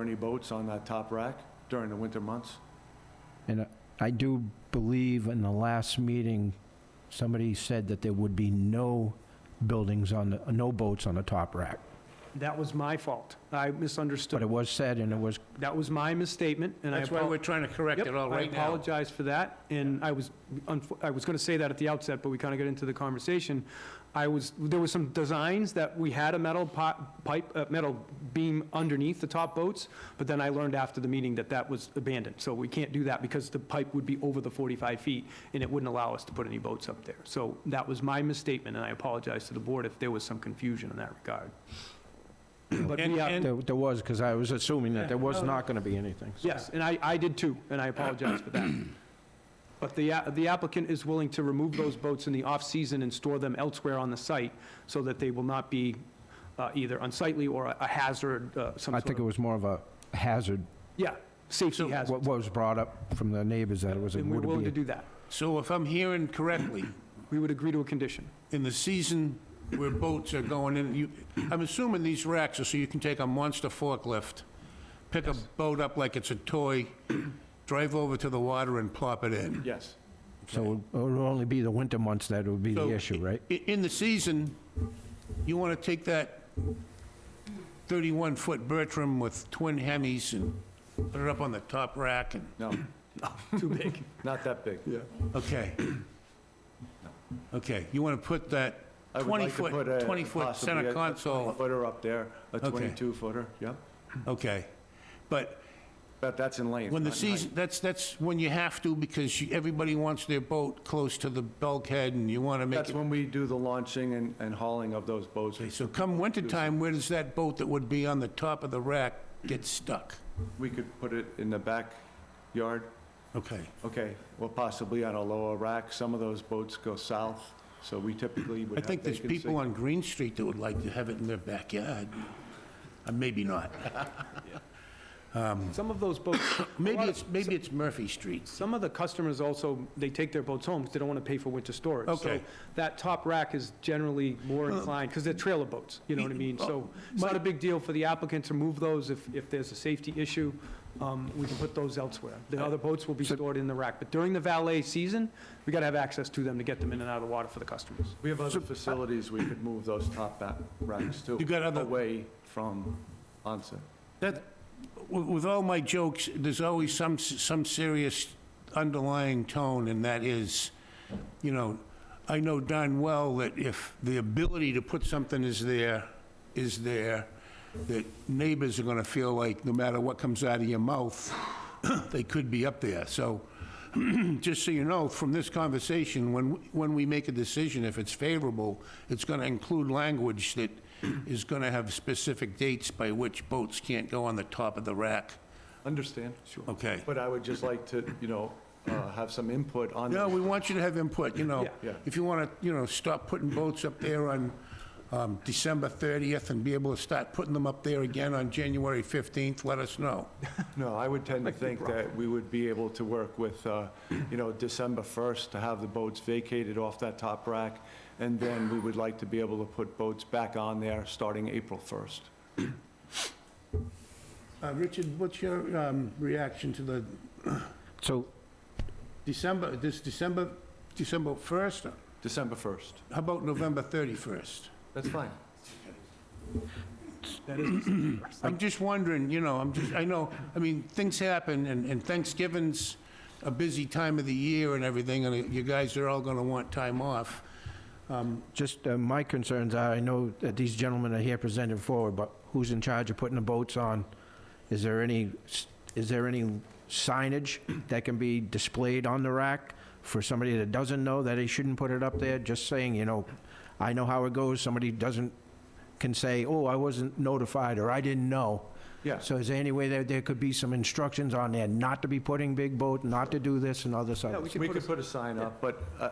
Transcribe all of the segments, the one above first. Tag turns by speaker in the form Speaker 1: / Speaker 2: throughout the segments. Speaker 1: any boats on that top rack during the winter months?
Speaker 2: And I do believe in the last meeting, somebody said that there would be no buildings on, the no boats on the top rack.
Speaker 3: That was my fault. I
Speaker 2: But it
Speaker 3: misunderstood.
Speaker 2: was said, and it was,
Speaker 3: That was my misstatement, and I...
Speaker 4: That's why
Speaker 3: apo-
Speaker 4: we're trying to correct
Speaker 3: Yep,
Speaker 4: it all right
Speaker 3: I
Speaker 4: now.
Speaker 3: apologize for that, and I was, unf- I was going to say that at the outset, but we kind of got into the conversation. I was, there was some designs that we had a metal pi- pipe, uh, metal beam underneath the top boats, but then I learned after the meeting that that was abandoned. So we can't do that because the pipe would be over the 45 feet, and it wouldn't allow us to put any boats up there. So that was my misstatement, and I apologize to the board if there was some confusion in that regard. But
Speaker 4: And-
Speaker 3: we are,
Speaker 4: and-
Speaker 2: there there was, because I was assuming that there was not going to be anything. so.
Speaker 3: Yes, and I, I did too, and I apologize for that. But the, a- the applicant is willing to remove those boats in the off-season and store them elsewhere on the site so that they will not be uh, either unsightly or a a hazard, uh, some
Speaker 2: I
Speaker 3: sort
Speaker 2: think it
Speaker 3: of,
Speaker 2: was more of a hazard,
Speaker 3: yeah, safety hazard.
Speaker 2: what what was brought up from the neighbors, that it was, it
Speaker 3: And we're
Speaker 2: would
Speaker 3: willing to
Speaker 2: be.
Speaker 3: do that.
Speaker 4: So if I'm hearing correctly,
Speaker 3: We would agree to a condition.
Speaker 4: in the season where boats are going in, you, I'm assuming these racks are so you can take a monster forklift, pick a boat up like it's a toy, drive over to the water and plop it in.
Speaker 1: Yes.
Speaker 2: So it would only be the winter months that would be the
Speaker 4: So,
Speaker 2: issue, right?
Speaker 4: i- In the season, you want to take that 31-foot Bertram with twin Hemis and put it up on the top rack and,
Speaker 1: No,
Speaker 3: Too big.
Speaker 1: not that big.
Speaker 4: okay. Okay, you want to put that
Speaker 1: I would like to
Speaker 4: 20-foot,
Speaker 1: put a-
Speaker 4: 20-foot
Speaker 1: possibly a-
Speaker 4: center
Speaker 1: a
Speaker 4: console,
Speaker 1: 20 Footer up there, a
Speaker 4: Okay.
Speaker 1: 22 footer, yep.
Speaker 4: okay. But
Speaker 1: But that's in length.
Speaker 4: When the
Speaker 1: not in height.
Speaker 4: season, that's, that's when you have to, because you- everybody wants their boat close to the bulkhead, and you want to make
Speaker 1: That's
Speaker 4: it...
Speaker 1: when we do the launching and, and hauling of those boats.
Speaker 4: Okay, So come wintertime, where does that boat that would be on the top of the rack get stuck?
Speaker 1: We could put it in the backyard,
Speaker 4: Okay,
Speaker 1: okay, or possibly on a lower rack. Some of those boats go south, so we typically would
Speaker 4: I
Speaker 1: have
Speaker 4: think there's
Speaker 1: vacancy.
Speaker 4: people on Green Street that would like to have it in their backyard. Uh, Maybe not.
Speaker 3: Some of those boats,
Speaker 4: Maybe it's, maybe it's Murphy Street.
Speaker 3: some of the customers also, they take their boats home because they don't want to pay for winter storage. So
Speaker 4: Okay.
Speaker 3: That top rack is generally more inclined, because they're trailer boats, you know what I mean? So it's not a big deal for the applicant to move those if, if there's a safety issue. um, We can put those elsewhere. The other boats will be stored in the rack. But during the valet season, we got to have access to them to get them in and out of the water for the customers.
Speaker 1: We have other facilities we could move those top back racks to.
Speaker 4: You got other-
Speaker 1: Away from onset.
Speaker 4: That, with with all my jokes, there's always some, s- some serious underlying tone, and that is, you know, I know darn well that if the ability to put something is there, is there, that neighbors are gonna feel like, no matter what comes out of your mouth, they could be up there. So, just so you know, from this conversation, when, when we make a decision, if it's favorable, it's going to include language that is going to have specific dates by which boats can't go on the top of the rack.
Speaker 1: Understand? Sure.
Speaker 4: Okay.
Speaker 1: But I would just like to, you know, uh, have some input on.
Speaker 4: No,
Speaker 1: those.
Speaker 4: we want you to have input, you know.
Speaker 1: Yeah. Yeah.
Speaker 4: If you want to, you know, stop putting boats up there on um, December 30th and be able to start putting them up there again on January 15th, let us know.
Speaker 1: No, I would tend to think that we would be able to work with, uh, you know, December 1st to have the boats vacated off that top rack, and then we would like to be able to put boats back on there starting April 1st.
Speaker 4: Uh, Richard, what's your um, reaction to the
Speaker 2: So
Speaker 4: December, this December, December 1st?
Speaker 1: December 1st.
Speaker 4: How about November 31st?
Speaker 1: That's fine.
Speaker 4: I'm just wondering, you know, I'm just, I know, I mean, things happen, and and Thanksgiving's a busy time of the year and everything, and you guys are all going to want time off.
Speaker 2: Just uh, my concerns are, I know that these gentlemen are here presented forward, but who's in charge of putting the boats on? Is there any, is there any signage that can be displayed on the rack for somebody that doesn't know that they shouldn't put it up there? Just saying, you know, I know how it goes, somebody doesn't, can say, oh, I wasn't notified, or I didn't know.
Speaker 1: Yeah.
Speaker 2: So is there any way that there could be some instructions on there, not to be putting big boat, not to do this and other stuff?
Speaker 3: Yeah, we
Speaker 1: We
Speaker 3: put
Speaker 1: could put a sign up, but uh,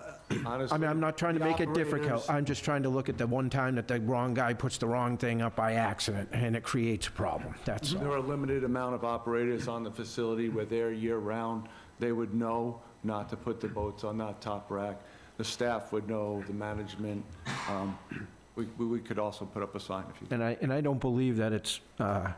Speaker 1: honestly...
Speaker 2: I mean, I'm not trying to
Speaker 1: the
Speaker 2: make it difficult.
Speaker 1: operators-
Speaker 2: I'm just trying to look at the one time that the wrong guy puts the wrong thing up by accident, and it creates a problem, that's
Speaker 1: There
Speaker 2: all.
Speaker 1: are a limited amount of operators on the facility where they're year-round. They would know not to put the boats on that top rack. The staff would know, the management. Um, we- We we could also put up a sign if you...
Speaker 2: And I, and I don't believe that it's uh,